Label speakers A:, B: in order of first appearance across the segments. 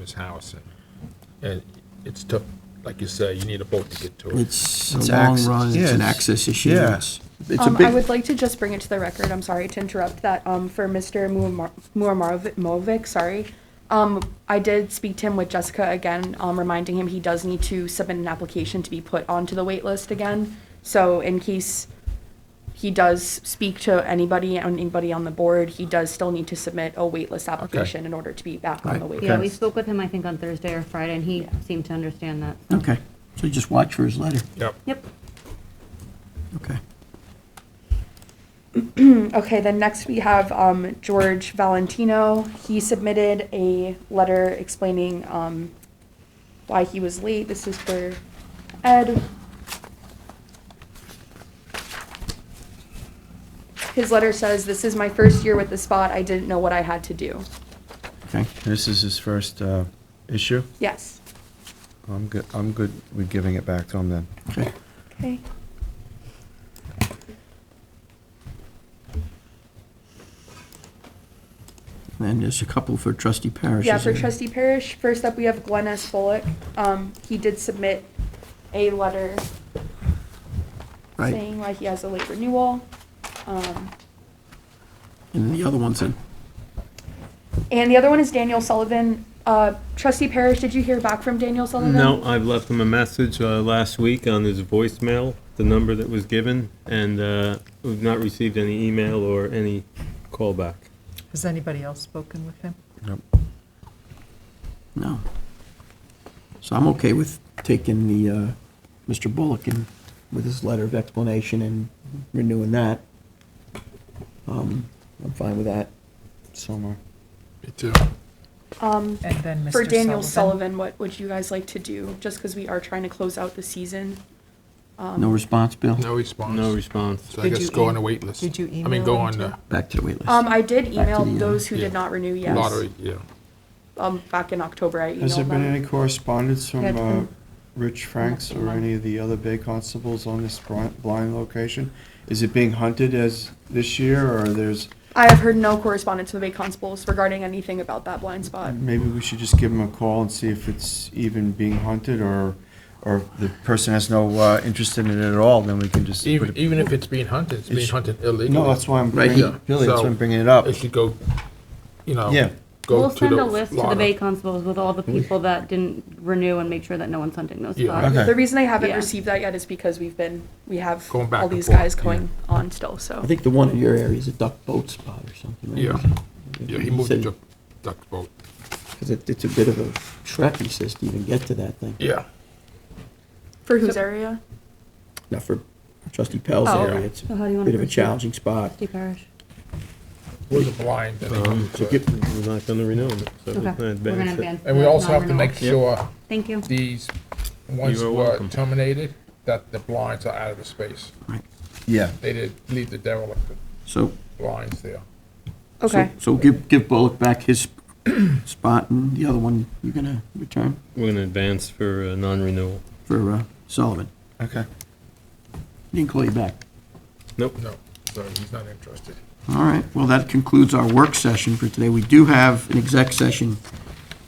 A: his house, and, and it's tough, like you say, you need a boat to get to it.
B: It's
C: It's
B: a long
C: acc-
B: run,
C: yeah,
B: it's an
C: it's-
B: access issue.
C: yeah.
B: It's it's a
D: Um, I
B: big,
D: would like to just bring it to the record, I'm sorry to interrupt, that um, for Mr. Muammar- Muammarovic, sorry, um, I did speak to him with Jessica again, um, reminding him he does need to submit an application to be put onto the wait list again. So in case he does speak to anybody, and anybody on the board, he does still need to submit a wait list application in order to be back on the
B: Right,
D: wait
E: Yeah,
D: list.
E: we spoke with him, I think, on Thursday or Friday, and he seemed to understand that. so-
B: okay. So you just watch for his letter.
A: Yep.
E: Yep.
B: Okay.
D: Okay, then next we have um, George Valentino. He submitted a letter explaining um, why he was late. This is for Ed. His letter says, "This is my first year with the spot. I didn't know what I had to do."
B: Okay.
C: This is his first uh, issue.
D: Yes.
C: I'm good, I'm good with giving it back to him then.
B: Okay.
D: Okay.
B: And there's a couple for trustee Parrish.
D: Yeah,
B: isn't
D: for
B: there?
D: trustee Parrish, first up, we have Glenn S. Bullock. Um, He did submit a letter
B: Right.
D: saying why he has a late renewal. Um,
B: And the other one's in.
D: And the other one is Daniel Sullivan. Uh, Trustee Parrish, did you hear back from Daniel Sullivan?
F: No, I've left him a message uh, last week on his voicemail, the number that was given, and uh, we've not received any email or any callback.
G: Has anybody else spoken with him?
B: No. So I'm okay with taking the, uh, Mr. Bullock and with his letter of explanation and renewing that. Um, I'm fine with that.
C: Somewhere.
A: Me too.
D: Um,
G: And then Mr.
D: for Daniel Sullivan, what would you guys like to do? Just because we are trying to close out the season.
B: No response, Bill?
A: No response.
F: No response.
A: So I
G: Did
A: guess
G: you
A: go on
G: em-
A: the wait list.
G: did you
A: I mean, go
G: email
A: on
G: him
A: the
B: Back to the wait list.
D: Um, I did email
B: the, uh,
D: those who
A: yeah.
D: did not renew, yes.
A: lottery, yeah.
D: Um, back in October, I
C: Has there
D: emailed
C: been
D: them.
C: any correspondence
D: Yeah,
C: from
D: it's
C: uh,
D: been-
C: Rich Franks or
D: month.
C: any of the other Bay Constables on this bri- blind location? Is it being hunted as this year, or there's,
D: I have heard no correspondence from the Bay Constables regarding anything about that blind spot.
C: maybe we should just give him a call and see if it's even being hunted, or, or if the person has no uh, interest in it at all, then we can just. put
A: Even,
C: it-
A: even if it's being hunted, it's being
C: It's-
A: hunted illegally.
C: No, that's why I'm
B: Right,
C: bringing,
A: yeah,
C: Billy, that's why
A: so-
C: I'm bringing it up.
A: It should go, you know.
C: Yeah.
A: go
E: We'll
A: to
E: send
A: the
E: a list to the
A: lottery.
E: Bay Constables with all the people that didn't renew and make sure that no one's hunting those
A: Yeah.
E: spots.
C: Okay.
D: The reason I haven't
E: Yeah.
D: received that yet is because we've been, we have
A: Going back
D: all
A: and
D: these
A: forth,
D: guys going on still, so.
B: I think the one in your area is a duck boat spot or something, right?
A: Yeah. Yeah, he moved it to duck boat.
B: Because it, it's a bit of a trek, he says, to even get to that thing.
A: Yeah.
D: For whose area?
B: Now, for trustee Pell's
D: Oh.
B: area, it's
E: So how do you
B: a
E: wanna
B: bit of a
E: proceed?
B: challenging spot.
E: Trustee Parrish.
A: Was a blind. and he
F: Um,
A: moved
F: so
A: it.
F: get- We're not going to renew him.
E: Okay.
F: so
E: We're
F: we're gonna
E: gonna
F: advance it.
E: ban.
A: And we
E: the
A: also have to make
E: non-renewal.
A: sure
E: Thank you.
A: these, once
F: You are
A: were
F: welcome.
A: terminated, that the blinds are out of the space.
B: Right.
C: Yeah.
A: They did leave the derelict
B: So,
A: blinds there.
B: so-
D: Okay.
B: so give, give Bullock back his spot, and the other one you're gonna return
F: We're going to advance for uh, non-renewal.
B: for uh, Sullivan.
C: Okay.
B: He didn't call you back.
F: Nope.
A: No, so he's not interested.
B: All right, well, that concludes our work session for today. We do have an exec session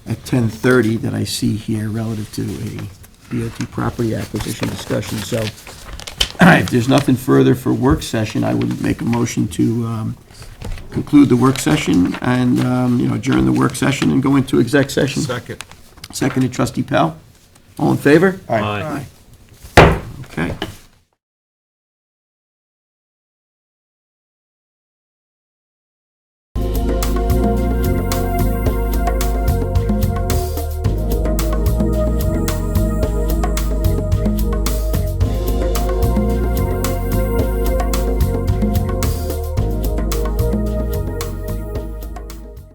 B: at 10:30 that I see here relative to a DOT property acquisition discussion, so if there's nothing further for work session, I would make a motion to um, conclude the work session and, um, you know, adjourn the work session and go into exec session.
A: Second.
B: Seconded trustee Pell. All in favor?
C: Aye.
F: Aye.
B: Okay.